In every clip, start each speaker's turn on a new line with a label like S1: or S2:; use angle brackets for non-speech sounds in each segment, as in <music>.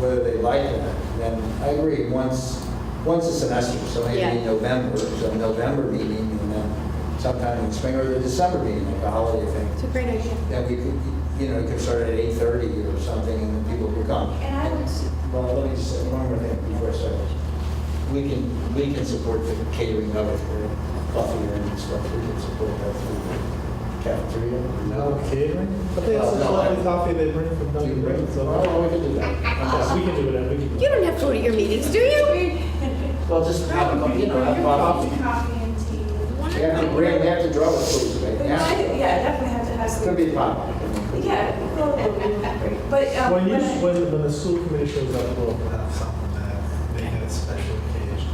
S1: whether they like it or not. And then I agree, once, once a semester, so maybe
S2: Yeah.
S1: in November, so November meeting, and then sometime in spring or the December meeting, like the holiday
S2: It's
S1: thing.
S2: a great idea.
S1: Then we could, you know, we could start at 8:30 or something, and then people could come.
S3: And I would, s-
S1: Well, let me just say one more thing before I start. We can, we can support the catering of it for coffee and stuff. We can support that through the cafeteria.
S4: No catering? I
S1: No,
S4: think it's
S1: no,
S4: just
S1: I-
S4: only coffee they bring from
S1: Do you
S4: Dunkin'
S1: bring-
S4: Donuts. so-
S1: Oh, we can do that.
S4: Yes, We can do it, we can do it.
S2: You don't have to go to your meetings, do you?
S1: Well, just have a, you know, have coffee.
S3: coffee, coffee and tea.
S1: They have to bring, they have to draw the food, right?
S3: But
S1: They have
S3: I-
S1: to.
S3: Yeah, definitely have to have
S1: Could
S3: some.
S1: be fun.
S3: Yeah, probably would be great. but,
S2: uh,
S3: um,
S4: When you,
S3: when I-
S4: when, when the school committee shows up, we'll have something that they get a special occasion.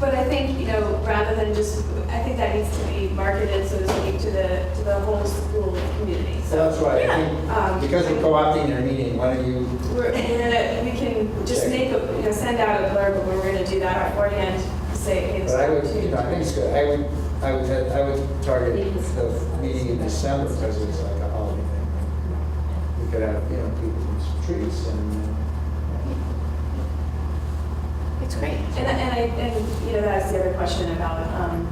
S3: but I think, you know, rather than just, I think that needs to be marketed, so to speak, to the, to the whole school community,
S1: So
S3: so.
S1: That's right. I
S3: Um,
S1: think because we're co-opting their meeting, why don't you,
S3: We're, we're gonna, we can just make, a you know, send out a blurb, but we're gonna do that beforehand, to say, hey, this
S1: but I would, you
S3: opportunity.
S1: know, I think it's good. I would, I would, I would target the meeting in December because it's like a holiday thing. We could have, you know, people in the streets and, uh,
S2: It's great.
S3: And, and I, and, you know, that's the other question about, um,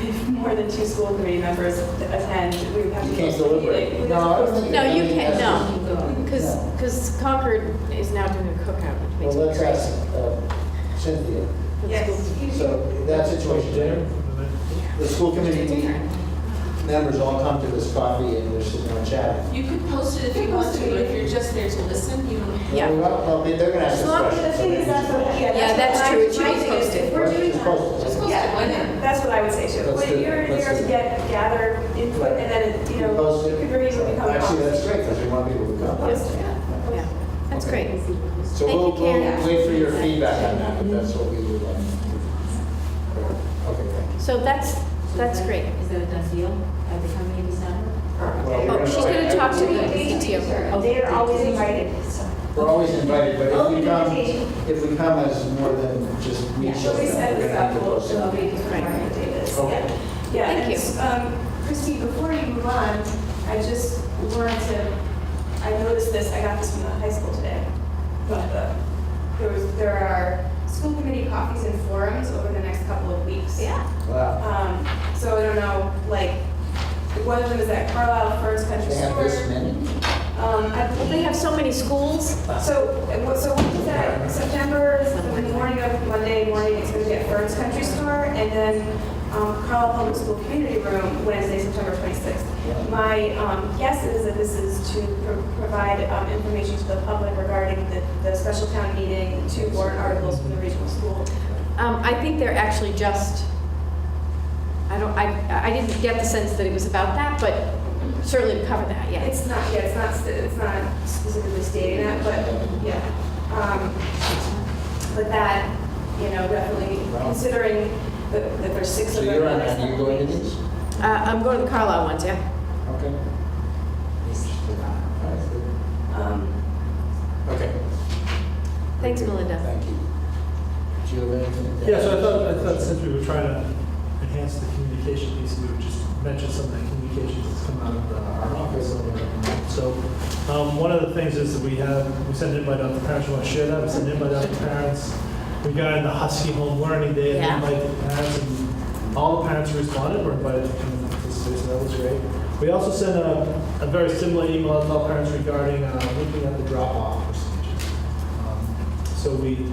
S3: if more than two school committee members attend, we would have to.
S1: you can't
S3: post the
S1: deliberate.
S3: meeting.
S1: No, I don't think.
S2: No, you
S1: I think
S2: can't,
S1: that's-
S2: no, because,
S1: No.
S2: because Concord is now doing a cookout, which
S1: Well,
S2: makes me
S1: let's
S2: crazy.
S1: ask uh, Cynthia.
S3: Yes. you-
S1: So in that situation,
S4: Dinner?
S1: there, the school committee members all come to this coffee and they're sitting and chatting.
S5: You could post it if you want to, but if you're just there to listen, you don't.
S2: Yeah.
S1: Well, well, they- they're gonna ask
S3: As
S1: us
S3: long as the
S1: questions.
S3: thing is, that's what, yeah.
S2: Yeah, that's
S3: what
S2: true.
S3: my-
S2: It should be
S3: my thing is,
S2: posted.
S3: If we're doing
S1: Just
S3: that.
S1: post it.
S5: Just post it,
S3: Yeah,
S5: why not?
S3: that's what I would say too.
S1: Let's do
S3: When
S1: it.
S3: you're
S1: Let's
S3: there
S1: do
S3: to
S1: it.
S3: get, gather input and then, it, you know,
S1: Post
S3: you
S1: it.
S3: could very easily become.
S1: Actually, that's great, because we want people to
S3: Post
S1: come.
S3: it.
S2: Yeah, that's great.
S1: So
S2: Thank
S1: we'll,
S2: you, Karen.
S1: we'll wait for your feedback on that, but that's what we would like. Okay, thank you.
S2: So that's, that's great.
S6: Is that a done deal? Are they coming in December?
S1: Well,
S2: Oh,
S1: we're
S2: she's
S1: invite
S2: gonna talk to the
S1: everyone.
S2: PTO.
S6: They are always
S3: invited.
S1: We're always invited, but if we
S6: Open
S1: come,
S6: invitation.
S1: if we come as more than just me
S6: Yeah.
S1: showing
S3: So
S1: up,
S3: we
S1: we're
S3: set
S1: gonna
S3: this
S1: have
S3: up,
S1: to
S3: we'll,
S1: post
S3: it'll
S1: it.
S3: be different
S2: Right.
S3: Ryan Davis,
S1: Okay.
S3: yeah. Yeah,
S2: Thank
S3: and,
S2: you.
S3: um, Christine, before you move on, I just wanted to, I noticed this, I got this from the high school today. But the, there was, there are school committee coffees and forums over the next couple of weeks.
S2: Yeah.
S1: Wow.
S3: Um, so I don't know, like, one of them is at Carlisle First Country
S1: They have this
S3: Store.
S1: many?
S3: Um, I
S2: Well, They
S3: believe
S2: have so many schools.
S3: so, uh, what- so what is that, September, is the morning of Monday morning, it's going to be at Burns Country Store, and then um, Carlisle Public School Community Room, Wednesday, September 26th. My um, guess is that this is to pro- provide um, information to the public regarding the, the special town meeting, the two warrant articles from the regional school.
S2: Um, I think they're actually just, I don't, I, I didn't get the sense that it was about that, but certainly we cover that, yeah.
S3: It's not, yeah, it's not, st- it's not specifically stating that, but, yeah. Um, But that, you know, definitely considering that that there's six
S1: So
S3: of them.
S1: you're on, are you going to these?
S2: Uh, I'm going to the Carlisle ones, yeah.
S1: Okay.
S3: Um,
S1: Okay.
S2: Thanks, Melinda.
S1: Thank you. Do you have anything?
S4: Yeah, so I thought, I thought since we were trying to enhance the communication piece, we would just mention some of the communications that's come out of uh, our office. over there. So, um, one of the things is that we have, we send an invite out to parents, we want to share that, we send an invite out to parents. We got in the Husky Home Learning Day, and
S2: Yeah.
S4: invited the parents, and all the parents who responded, were invited to come and participate, so that was great. We also sent a, a very similar email out to all parents regarding, uh, looking at the drop-off procedures. Um, So we,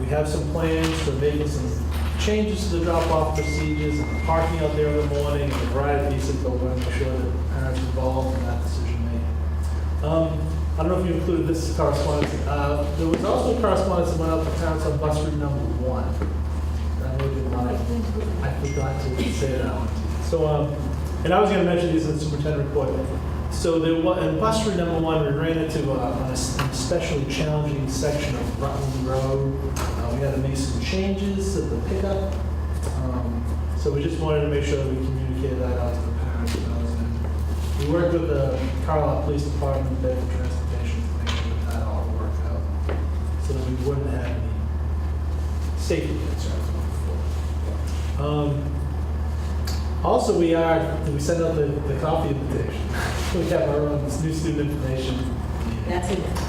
S4: we have some plans for making some changes to the drop-off procedures and the parking out there in the morning and a variety of pieces, but we want to make sure that parents are involved in that decision-making. Um, I don't know if you included this correspondence. Uh, There was also correspondence that went out to parents on bus route number one. I know you want it. I forgot to say that one. So, um, and I was gonna mention these in the superintendent report. So there was, in bus route number one, we ran into uh, on a s- an especially challenging section of Rutland Road. Uh, we had to make some changes at the pickup. Um, So we just wanted to make sure that we communicated that out to the parents. and others. And We worked with the Carlisle Police Department, Bedford Transportation, to make sure that that all worked out. So that we wouldn't have any safety concerns moving forward. Um, Also, we are, we send <laughs> out the, the coffee invitation. We have our own new student information.
S6: That's it.